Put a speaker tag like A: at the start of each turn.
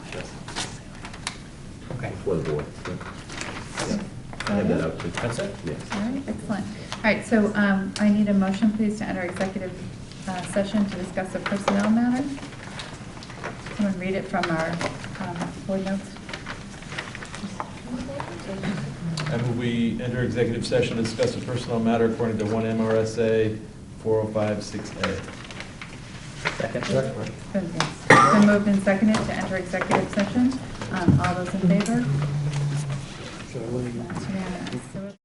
A: for the board. Yeah. I have that out too.
B: That's it?
A: Yes.
C: All right, excellent. All right, so um, I need a motion, please, to enter executive uh, session to discuss a personnel matter. Someone read it from our um, board notes.
B: I move we enter executive session to discuss a personal matter according to one MRSA 4056A.
C: It's been it's been moved and seconded to enter executive session. Um, All those in favor? It's unanimous.